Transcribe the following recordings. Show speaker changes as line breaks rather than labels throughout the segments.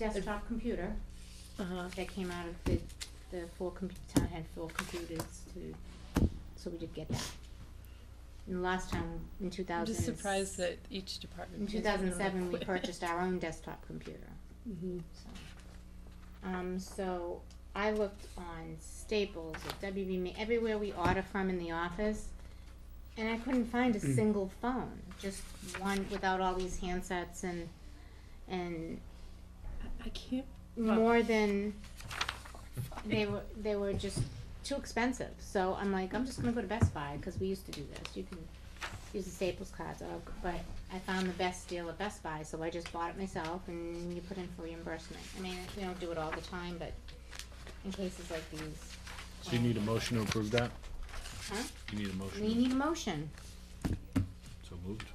desktop computer
Uh-huh.
that came out of the, the four, com- town had four computers to, so we did get that. And last time, in two
I'm
thousand.
just surprised that each department.
In two
pays their own
thousand seven, we
equipment.
purchased our own desktop computer,
Mhm.
so. Um, so I looked on Staples, at WB, Ma- everywhere we order from in the office, and I couldn't find a
Mm.
single phone, just one without all these handsets and, and
I- I can't, Well-
more than they were they were just too expensive so i'm like i'm just going to go to best buy because we used to do this you can use the staples cards or, but i found the best deal at best buy so i just bought it myself and you put in for reimbursement i mean we don't do it all the time but in cases like these
So you need a motion to approve that?
huh?
You need a
we
motion?
need a motion
So moved.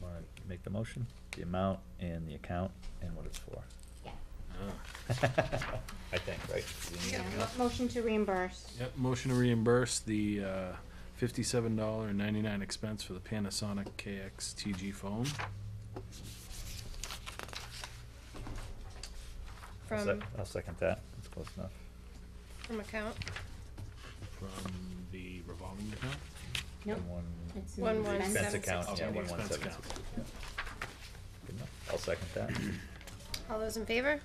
All right, make the motion, the amount and the account and what it's for.
yeah,
Ah.
I think, right?
yeah. mo- motion to reimburse
Yep, motion to reimburse the, uh, fifty-seven dollar and ninety-nine expense for the Panasonic KXTG phone.
I'll sec-
From,
I'll second that, that's close enough.
from account,
from the revolving account? Oh,
nope
And One
it's an
One, one,
expense.
expense
seven,
account,
six,
yeah,
two.
one, one,
Expense
seven.
account.
six. Good enough. I'll second that.
all those in favor?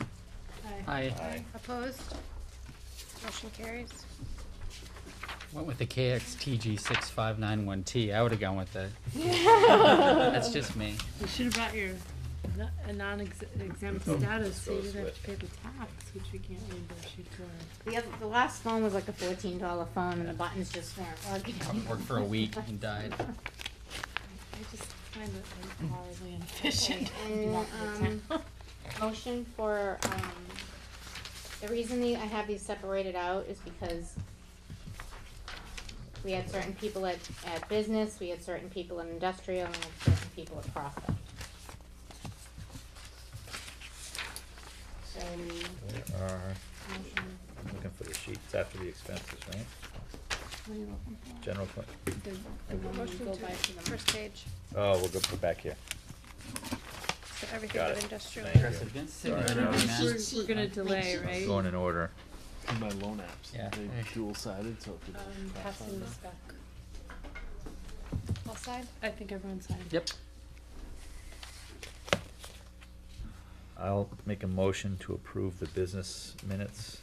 Aye.
Aye.
Opposed? Motion carries.
Went with the KXTG six five nine one T. I would have gone with the. That's just me.
you should have brought your no- a non-exempt
Oh,
status, so you
goes
didn't have
with-
to pay the tax, which we can't reimburse you for.
the, other, the last phone was like a $14 phone and the buttons just weren't working
Worked for a week and died.
I just find that like, horribly inefficient.
And, um, motion for, um, the reason the- I have these separated out is because we had certain people at, at business, we had certain people in industrial, and we had certain people at profit. So,
There are,
motion,
I'm looking for the sheets after the expenses, right?
what are you looking for?
General fund,
The, the one we
Motion
go
to,
by for the
first page,
oh, we'll go put back here.
so everything
Got
but
it.
industrial.
Thank you.
Sitting
Sorry,
under
no,
my
it's
mask.
We're, we're gonna delay,
sheet.
right?
Going in ororder.
And my loan apps,
Yeah.
they dual sided, so if you
Um,
don't
passing this back.
All side?
I think everyone signed.
Yep.
I'll make a motion to approve the business minutes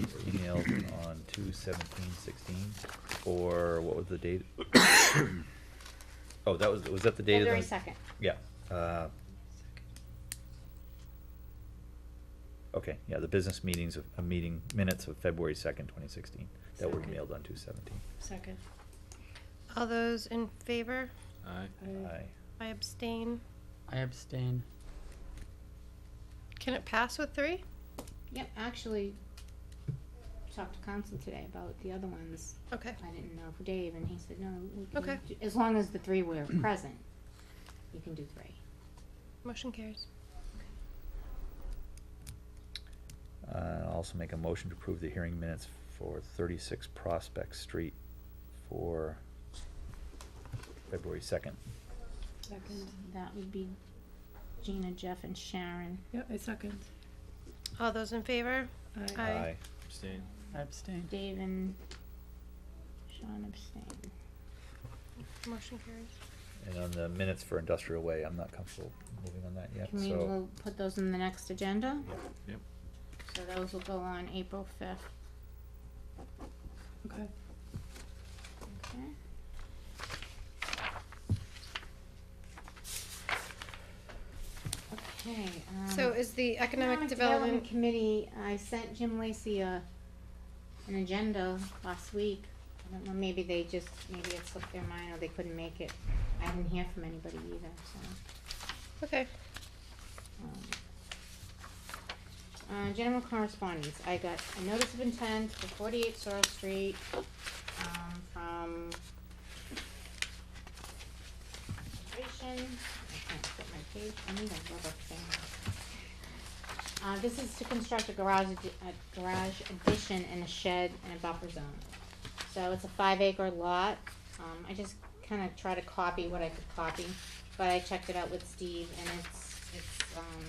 emailed on two seventeen sixteen, or what was the date? Oh, that was, was that the date of the?
February second,
Yeah, uh. Okay, yeah, the business meetings of, a meeting minutes of February second, twenty sixteen, that were
Second.
mailed on two seventeen.
Second.
All those in favor?
Aye.
I-
Aye,
I abstain.
I abstain.
Can it pass with three?
yep, actually, talked to council today about the other ones.
Okay,
I didn't know for Dave, and he said, no, we can
Okay.
do- as long as the three were present, you can do three.
motion carries.
uh, I'll also make a motion to approve the hearing minutes for thirty-six Prospect Street for February second.
Second.
That would be Gina, Jeff, and Sharon.
Yep, I second.
All those in favor?
I-
Aye.
Abstain.
I abstain.
Dave and Sean abstained.
Motion carries.
And on the minutes for industrial way, I'm not comfortable moving on that yet,
Can we,
so.
we'll put those in the next agenda?
Yep.
So those will go on April fifth,
Okay.
okay? Okay, um.
So is the economic development,
Committee, I sent Jim Lacy a, an agenda last week. I don't know, maybe they just, maybe it slipped their mind or they couldn't make it. I didn't hear from anybody either, so.
okay,
um. Uh, general correspondence, I got a notice of intent for forty-eight Sorrel Street, um, from Conservation. I can't fit my page, I need a rubber thing. Uh, this is to construct a garage, addi- a garage addition and a shed and a buffer zone. So it's a five acre lot, um, I just kinda try to copy what I could copy, but I checked it out with Steve and it's, it's, um,